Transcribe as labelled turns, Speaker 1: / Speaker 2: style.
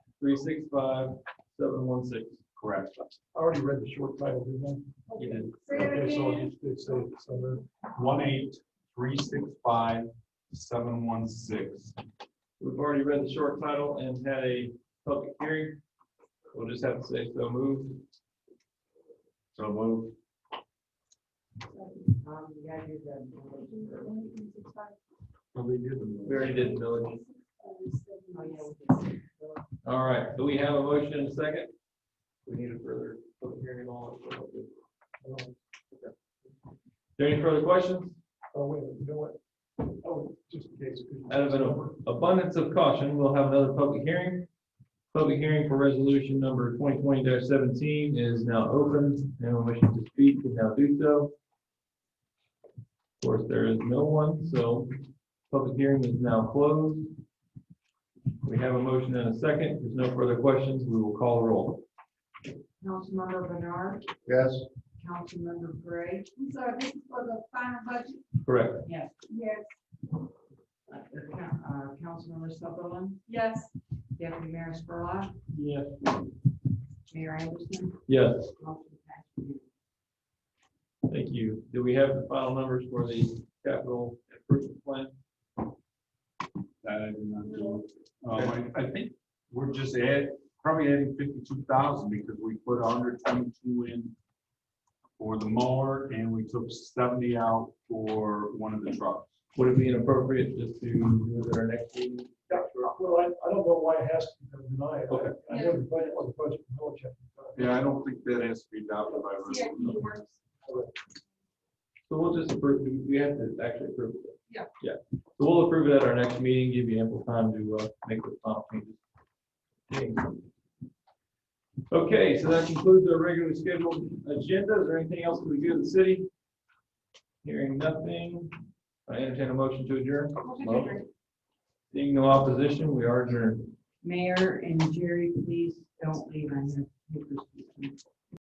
Speaker 1: three six five seven one six.
Speaker 2: Correct.
Speaker 3: I already read the short title, didn't
Speaker 2: It is
Speaker 3: I?
Speaker 4: Say it
Speaker 3: Okay, so
Speaker 4: again.
Speaker 3: it's, it's, it's, uh,
Speaker 2: one eight three six five seven one six.
Speaker 1: We've already read the short title and had a public hearing. We'll just have to say so moved.
Speaker 2: So move.
Speaker 1: We already did, Billy. All right, do we have a motion and a second? We need a further public hearing and all. that. Okay. There any further questions?
Speaker 3: oh, wait, a minute, you know what? Oh, just in case.
Speaker 1: Out of an abundance of caution, we'll have another public hearing. Public hearing for resolution number twenty twenty seventeen is now open. Anyone wishing to speak can now do so. Of course, there is no one, so public hearing is now closed. We have a motion and a second. If There's no further questions. We will call a roll.
Speaker 4: Councilmember Bernard,
Speaker 3: Yes.
Speaker 4: Councilmember Gray. I'm sorry, this is for the final budget?
Speaker 1: Correct.
Speaker 4: Yes.
Speaker 5: Uh, Councilmember Sutherland,
Speaker 4: Yes.
Speaker 5: Deputy Mayor Spurlock,
Speaker 1: Yes.
Speaker 5: Mayor Anderson,
Speaker 1: Yes,
Speaker 5: motion passed unanimously.
Speaker 1: thank you. Do we have the final numbers for the capital improvement plan?
Speaker 2: That I did not do. Um, I I think we're just add, probably adding fifty-two thousand because we put hundred twenty-two in for the mower and we took seventy out for one of the trucks.
Speaker 1: Would it be inappropriate just to do it at our next meeting?
Speaker 3: Well, I, I don't know why it has to be denied. I-
Speaker 1: Okay.
Speaker 3: I know the budget was a budget, no check.
Speaker 2: Yeah, I don't think that has to be adopted by resolution.
Speaker 1: So we'll just approve, we- we have to actually approve it.
Speaker 4: Yeah.
Speaker 1: Yeah, so we'll approve it at our next meeting, give you ample time to uh, make the final changes. Okay, so that concludes our regularly scheduled agenda. Is there anything else that we do in the city? Hearing nothing, I entertain a motion to adjourn. Seeing no opposition, we are adjourned.
Speaker 5: Mayor and Jerry, please don't leave. I have papers. to sign.